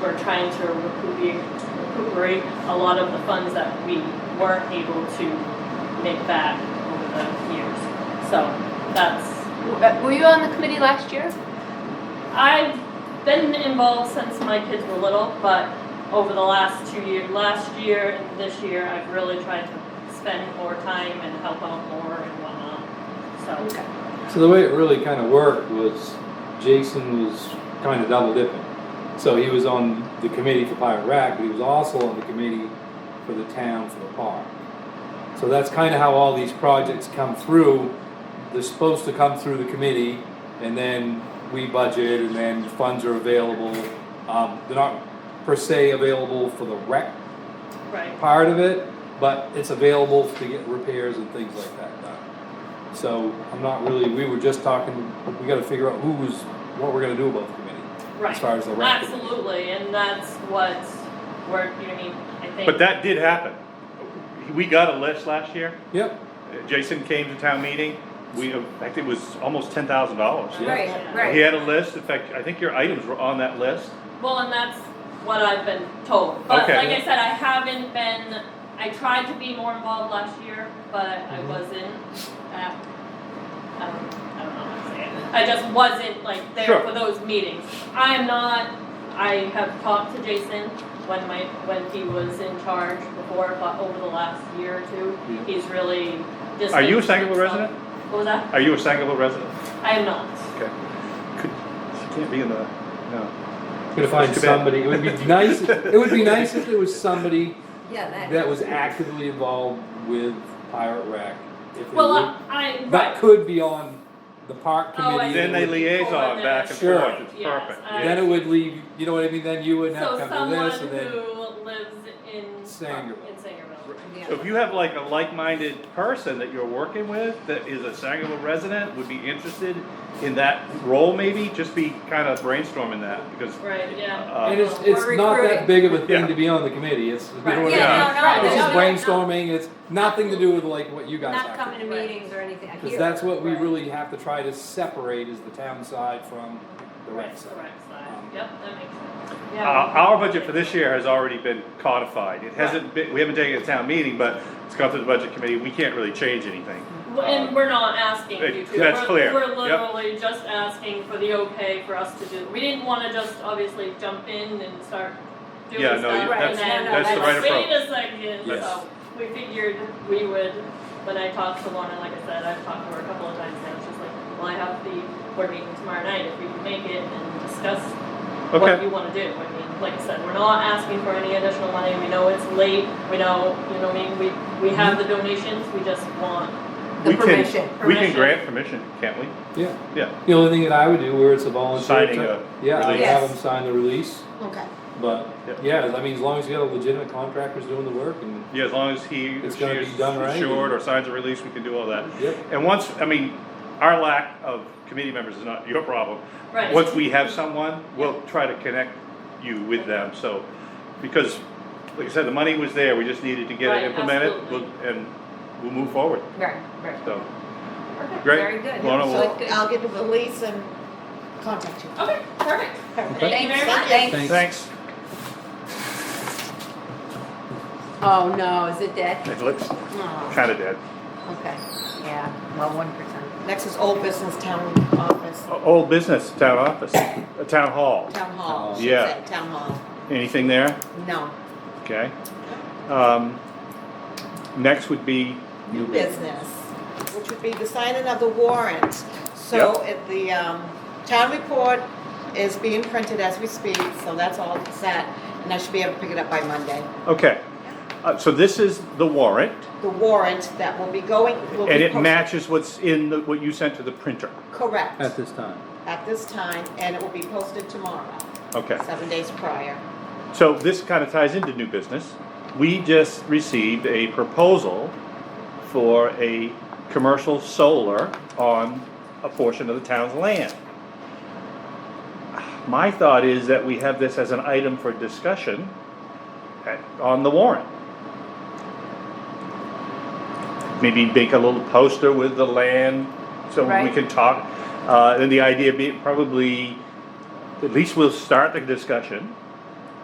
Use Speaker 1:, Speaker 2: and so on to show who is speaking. Speaker 1: We're trying to recuperate, recuperate a lot of the funds that we weren't able to make back over the years. So that's,
Speaker 2: Uh, Were you on the committee last year?
Speaker 1: I've been involved since my kids were little, but over the last two years, last year and this year, I've really tried to spend more time and help out more and whatnot. So,
Speaker 2: Okay.
Speaker 3: So the way it really kind of worked was Jason was kind of double dipping. So he was on the committee for Pirate Rack, but he was also on the committee for the town for the park. So that's kind of how all these projects come through. They're supposed to come through the committee and then we budget and then funds are available. Um, they're not per se available for the rec
Speaker 1: right,
Speaker 3: part of it, but it's available to get repairs and things like that done. So I'm not really, we were just talking, we gotta figure out who's, what we're gonna do about the committee.
Speaker 1: right.
Speaker 3: As far as the rec.
Speaker 1: Absolutely, and that's what we're, you know, what I mean, I think.
Speaker 4: But that did happen. We got a list last year.
Speaker 3: Yep,
Speaker 4: Uh, Jason came to town meeting. We, in fact, it was almost ten thousand dollars.
Speaker 3: Yeah.
Speaker 2: Right,
Speaker 4: He
Speaker 2: right.
Speaker 4: had a list. In fact, I think your items were on that list.
Speaker 1: Well, and that's what I've been told. But
Speaker 4: Okay.
Speaker 1: like I said, I haven't been. I tried to be more involved last year, but
Speaker 4: Mm-hmm.
Speaker 1: I wasn't. At, I don't, I don't know how to say it. I just wasn't like there
Speaker 4: Sure.
Speaker 1: for those meetings. I am not. I have talked to Jason when my when he was in charge before, but over the last year or two,
Speaker 3: Yeah.
Speaker 1: he's really. Just
Speaker 4: Are you a Sangerville resident?
Speaker 1: What was that?
Speaker 4: Are you a Sangerville resident?
Speaker 1: I am not.
Speaker 4: Okay. Could, she can't be in the, no.
Speaker 3: gonna find
Speaker 4: Too bad.
Speaker 3: somebody, it would be nice, it would be nice if there was somebody
Speaker 2: Yeah,
Speaker 3: that was actively involved with pirate rec. If they
Speaker 1: Well,
Speaker 3: would-
Speaker 1: I,
Speaker 4: Mm-hmm.
Speaker 1: I
Speaker 3: That
Speaker 1: right.
Speaker 3: could be on the park
Speaker 1: Oh, I
Speaker 3: committee.
Speaker 4: Then they liaison back and
Speaker 3: Sure.
Speaker 4: forth. It's
Speaker 1: Yes,
Speaker 4: perfect.
Speaker 1: I-
Speaker 3: Then it would leave, you know what I mean, then you wouldn't have
Speaker 1: So
Speaker 3: to come to
Speaker 1: someone
Speaker 3: this and then,
Speaker 1: who lives in uh,
Speaker 3: Sangerville.
Speaker 1: In Sangerville.
Speaker 4: So if you have like a like-minded person that you're working with that is a Sangerville resident, would be interested in that role maybe, just be kind of brainstorming that because.
Speaker 1: Right, yeah.
Speaker 4: uh,
Speaker 3: and it's,
Speaker 1: We're
Speaker 3: it's not that
Speaker 2: recruiting.
Speaker 3: big of a thing
Speaker 4: Yeah.
Speaker 3: to be on the committee, it's, you know
Speaker 1: Right.
Speaker 3: what I mean?
Speaker 4: Yeah.
Speaker 2: Yeah, no, no.
Speaker 3: It's
Speaker 2: no,
Speaker 3: just
Speaker 2: no,
Speaker 3: brainstorming, it's nothing to do with like what you guys
Speaker 2: Not
Speaker 3: have
Speaker 2: coming
Speaker 3: to
Speaker 2: to meetings or anything. I
Speaker 3: Because
Speaker 2: hear.
Speaker 3: that's what we
Speaker 1: Right.
Speaker 3: really have to try to separate is the town side from the
Speaker 1: Right,
Speaker 3: rec
Speaker 1: the
Speaker 3: side.
Speaker 1: right side. Yep, that makes sense.
Speaker 4: Uh,
Speaker 1: Yeah.
Speaker 4: Our budget for this year has already been codified. It hasn't been, we haven't taken it to town meeting, but it's gone through the budget committee. We can't really change anything.
Speaker 1: Well, And we're not asking
Speaker 4: It-
Speaker 1: you to.
Speaker 4: that's
Speaker 1: We're-
Speaker 4: clear.
Speaker 1: We're
Speaker 4: Yep.
Speaker 1: literally just asking for the okay for us to do. We didn't wanna just obviously jump in and start doing
Speaker 4: Yeah,
Speaker 1: stuff.
Speaker 4: no, you-
Speaker 1: and
Speaker 2: that's-
Speaker 1: then
Speaker 2: that's the
Speaker 1: we're
Speaker 2: right
Speaker 1: like, Wait a second,
Speaker 4: Yes.
Speaker 1: so we figured we would, when I talked to Lorna, like I said, I've talked to her a couple of times now, she's like, well, I have the board meeting tomorrow night, if we can make it and discuss what
Speaker 4: Okay.
Speaker 1: you wanna do. I mean, like I said, we're not asking for any additional money, we know it's late, we know, you know, what I mean, we, we have the donations, we just want
Speaker 2: The
Speaker 4: We can-
Speaker 2: permission.
Speaker 4: We can
Speaker 1: Permission.
Speaker 4: grant permission, can't we?
Speaker 3: Yeah,
Speaker 4: Yeah.
Speaker 3: the only thing that I would do where it's a volunteer.
Speaker 4: Signing
Speaker 3: type-
Speaker 4: a
Speaker 3: Yeah, I would
Speaker 2: release.
Speaker 3: have them sign the release,
Speaker 2: Okay.
Speaker 3: but,
Speaker 4: Yeah.
Speaker 3: yeah, I mean, as long as you got a legitimate contractor who's doing the work and,
Speaker 4: Yeah, as long as he, or
Speaker 3: It's
Speaker 4: she
Speaker 3: gotta
Speaker 4: is
Speaker 3: be done right.
Speaker 4: insured or signs a release, we can do all that.
Speaker 3: yep.
Speaker 4: And once, I mean, our lack of committee members is not your problem.
Speaker 1: Right.
Speaker 4: Once we have someone, we'll try to connect you with them, so, because, like I said, the money was there, we just needed to get
Speaker 1: Right,
Speaker 4: it implemented,
Speaker 1: absolutely.
Speaker 4: we'll- and we'll move forward,
Speaker 2: Right, right.
Speaker 4: so.
Speaker 2: Perfect.
Speaker 4: Great.
Speaker 2: Very good.
Speaker 4: Lorna will-
Speaker 2: So
Speaker 5: So
Speaker 2: good.
Speaker 5: I'll get the release and contact you.
Speaker 1: Okay, perfect. Thank you
Speaker 2: Thanks,
Speaker 1: very much.
Speaker 2: thanks.
Speaker 3: Thanks.
Speaker 4: Thanks.
Speaker 2: Oh, no, is it dead?
Speaker 4: It looks
Speaker 2: Oh,
Speaker 4: kinda dead.
Speaker 2: okay. Yeah, well, one percent.
Speaker 5: Next is old business town office,
Speaker 4: O- Old business, town office, uh, town hall,
Speaker 5: town hall. She
Speaker 4: Yeah.
Speaker 5: said Town hall,
Speaker 4: anything there?
Speaker 5: no,
Speaker 4: Okay. Um, next would be,
Speaker 5: new business, which would be the signing of the warrant. So at the, um, town report is being printed as we speak, so that's all set, and I should be able to pick it up by Monday.
Speaker 4: okay, uh, so this is the warrant,
Speaker 5: The warrant that will be going, will be.
Speaker 4: and it
Speaker 5: posted-
Speaker 4: matches what's in, the what you sent to the printer,
Speaker 5: Correct,
Speaker 3: At this time.
Speaker 5: at this time, and it will be posted tomorrow,
Speaker 4: okay?
Speaker 5: seven days prior.
Speaker 4: So this kind of ties into new business. We just received a proposal for a commercial solar on a portion of the town's land. My thought is that we have this as an item for discussion at- on the warrant. Maybe make a little poster with the land so we
Speaker 2: Right.
Speaker 4: can talk. Uh, and the idea being probably, at least we'll start the discussion